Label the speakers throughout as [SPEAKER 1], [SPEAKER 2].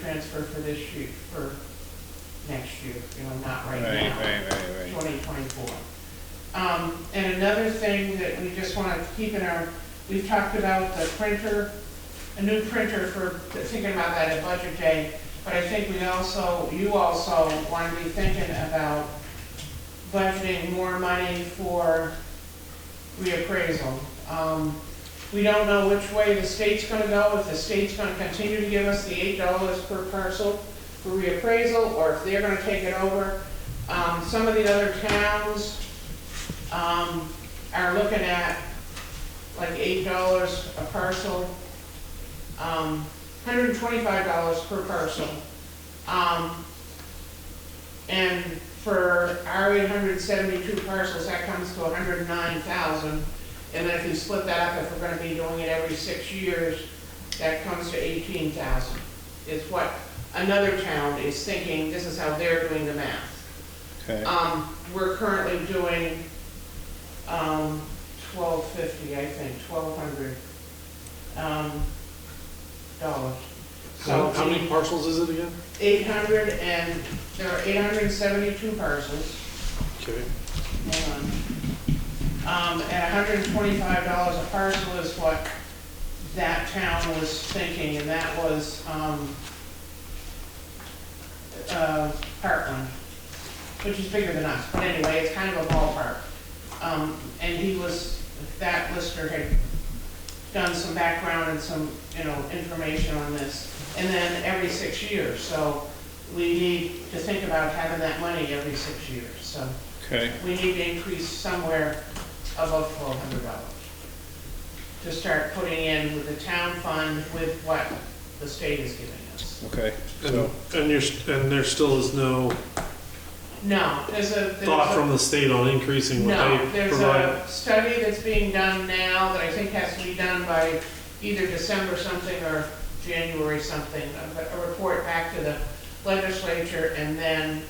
[SPEAKER 1] transfer for this year, for next year, you know, not right
[SPEAKER 2] Right,
[SPEAKER 1] now.
[SPEAKER 2] right, right, right.
[SPEAKER 1] 2024. Um, And another thing that we just want to keep in our, we've talked about the printer, a new printer for, thinking about that at Budget Day, but I think we also, you also want to be thinking about budgeting more money for reappraisal. Um, We don't know which way the state's going to go, if the state's going to continue to give us the $8 per parcel for reappraisal, or if they're going to take it over. Um, some of the other towns, um, are looking at like eight dollars a parcel, um, hundred and twenty-five dollars per parcel. Um, and for our eight hundred and seventy-two parcels, that comes to a hundred and nine thousand. And then if you split that up, if we're gonna be doing it every six years, that comes to eighteen thousand. Is what another town is thinking, this is how they're doing the math.
[SPEAKER 2] Okay,
[SPEAKER 1] Um, we're currently doing, um, twelve fifty, I think, twelve hundred, um, dollars. So
[SPEAKER 3] How, how many parcels is it again?
[SPEAKER 1] eight hundred and, there are eight hundred and seventy-two parcels,
[SPEAKER 3] Okay,
[SPEAKER 1] hang on. Um, at hundred and twenty-five dollars a parcel is what that town was thinking, and that was, um, uh, Heartland, which is bigger than us, but anyway, it's kind of a ballpark. Um, and he was, that lister had done some background and some, you know, information on this. And then every six years, so we need to think about having that money every six years, so
[SPEAKER 2] okay,
[SPEAKER 1] we need to increase somewhere above twelve hundred dollars to start putting in with the town fund with what the state is giving us.
[SPEAKER 2] okay.
[SPEAKER 3] and,
[SPEAKER 2] So,
[SPEAKER 3] and you're, st- and there still is no
[SPEAKER 1] No, there's a. there's
[SPEAKER 3] thought
[SPEAKER 1] a-
[SPEAKER 3] from the state on increasing what
[SPEAKER 1] No,
[SPEAKER 3] they
[SPEAKER 1] there's
[SPEAKER 3] provide?
[SPEAKER 1] a study that's being done now that I think has to be done by either December something or January something, a, a report back to the legislature, and then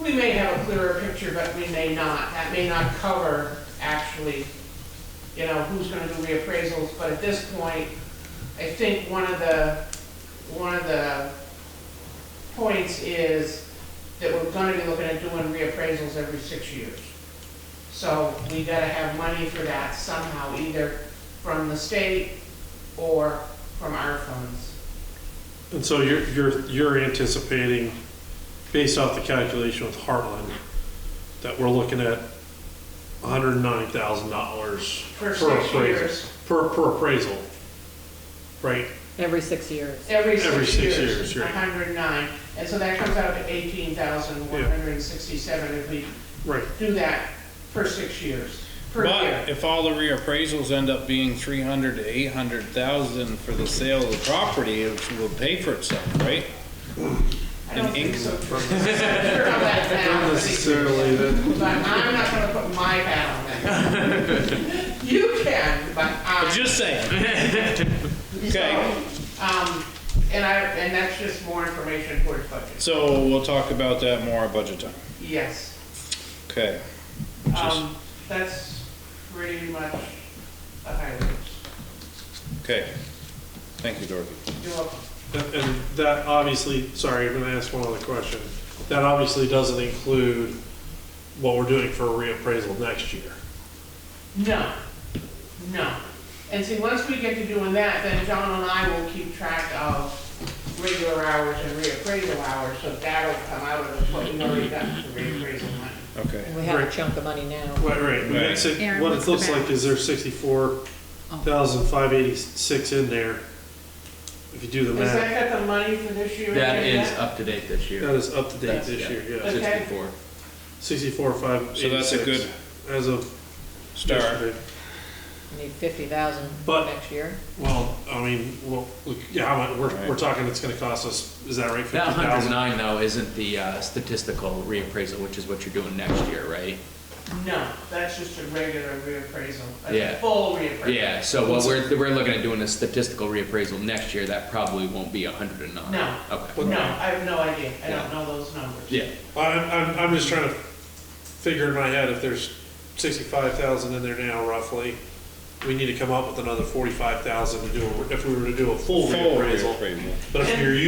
[SPEAKER 1] we may have a clearer picture, but we may not. That may not cover actually, you know, who's gonna do reappraisals, but at this point, I think one of the, one of the points is that we're gonna be looking at doing reappraisals every six years. So we gotta have money for that somehow, either from the state or from our funds.
[SPEAKER 3] And so you're, you're, you're anticipating, based off the calculation with Heartland, that we're looking at hundred and ninety thousand dollars
[SPEAKER 1] For
[SPEAKER 3] per
[SPEAKER 1] six
[SPEAKER 3] appraisal,
[SPEAKER 1] years,
[SPEAKER 3] per, per appraisal. Right,
[SPEAKER 4] Every six years.
[SPEAKER 1] every
[SPEAKER 3] Every
[SPEAKER 1] six
[SPEAKER 3] six
[SPEAKER 1] years.
[SPEAKER 3] years, right.
[SPEAKER 1] hundred and nine, and so that comes out to eighteen thousand one hundred and sixty-seven if we
[SPEAKER 3] right.
[SPEAKER 1] do that for six years, per year.
[SPEAKER 2] but if all the reappraisals end up being three hundred to eight hundred thousand for the sale of the property, it will pay for itself, right?
[SPEAKER 1] I don't
[SPEAKER 2] in
[SPEAKER 1] think
[SPEAKER 2] ink-
[SPEAKER 1] so. Sure how that
[SPEAKER 3] Not
[SPEAKER 1] sounds.
[SPEAKER 3] necessarily that,
[SPEAKER 1] But I'm not gonna put my hat on that. You can, but
[SPEAKER 2] I'm
[SPEAKER 1] I'm.
[SPEAKER 2] just
[SPEAKER 1] Mm-hmm.
[SPEAKER 2] saying. Okay,
[SPEAKER 1] Um, and I, and that's just more information for the budget.
[SPEAKER 2] so we'll talk about that more at budget time.
[SPEAKER 1] Yes,
[SPEAKER 2] Okay,
[SPEAKER 1] um, that's pretty much the highlights.
[SPEAKER 2] okay. Thank you, Dorothy.
[SPEAKER 1] You're welcome.
[SPEAKER 3] and that obviously, sorry, I'm gonna ask one other question. That obviously doesn't include what we're doing for a reappraisal next year.
[SPEAKER 1] No, no. And see, once we get to doing that, then John and I will keep track of regular hours and reappraisal hours, so that'll come out of what we already got for reappraisal money.
[SPEAKER 2] Okay.
[SPEAKER 4] And we have a
[SPEAKER 3] Right.
[SPEAKER 4] chunk of money now.
[SPEAKER 3] Right, right. We
[SPEAKER 2] Right.
[SPEAKER 3] mix it-
[SPEAKER 5] Aaron,
[SPEAKER 3] what
[SPEAKER 5] what's
[SPEAKER 3] it
[SPEAKER 5] the
[SPEAKER 3] looks like
[SPEAKER 5] balance? Oh.
[SPEAKER 3] is there's sixty-four thousand five eighty-six in there. If you do the
[SPEAKER 1] Is
[SPEAKER 3] math,
[SPEAKER 1] that got the money for this year?
[SPEAKER 6] That
[SPEAKER 1] in
[SPEAKER 6] is uh,
[SPEAKER 1] there?
[SPEAKER 6] up to date this
[SPEAKER 3] that
[SPEAKER 6] year,
[SPEAKER 3] is up to date
[SPEAKER 6] That's-
[SPEAKER 3] this
[SPEAKER 6] yeah.
[SPEAKER 3] year, yeah.
[SPEAKER 1] Okay.
[SPEAKER 6] sixty-four.
[SPEAKER 3] Sixty-four five eighty-six.
[SPEAKER 2] So that's a good
[SPEAKER 3] As of
[SPEAKER 2] Start.
[SPEAKER 3] yesterday.
[SPEAKER 4] We need fifty thousand
[SPEAKER 3] But-
[SPEAKER 4] next year.
[SPEAKER 3] Well, I mean, well, look, yeah, how much- we're,
[SPEAKER 2] Right.
[SPEAKER 3] we're talking it's gonna cost us, is that right,
[SPEAKER 6] That
[SPEAKER 3] fifty
[SPEAKER 6] hundred
[SPEAKER 3] thousand?
[SPEAKER 6] nine though isn't the uh, statistical reappraisal, which is what you're doing next year, right?
[SPEAKER 1] No, that's just a regular reappraisal, a
[SPEAKER 6] Yeah.
[SPEAKER 1] full reappraisal.
[SPEAKER 6] Yeah, so what we're, we're looking at doing a statistical reappraisal next year, that probably won't be hundred and nine.
[SPEAKER 1] No.
[SPEAKER 6] Okay.
[SPEAKER 1] No, I have no idea. I don't
[SPEAKER 6] Yeah.
[SPEAKER 1] know those numbers.
[SPEAKER 6] Yeah,
[SPEAKER 3] I'm, I'm, I'm just trying to figure in my head if there's sixty-five thousand in there now roughly, we need to come up with another forty-five thousand to do, a- if we were to do a full
[SPEAKER 2] Full
[SPEAKER 3] reappraisal.
[SPEAKER 2] reappraisal.
[SPEAKER 3] But if you're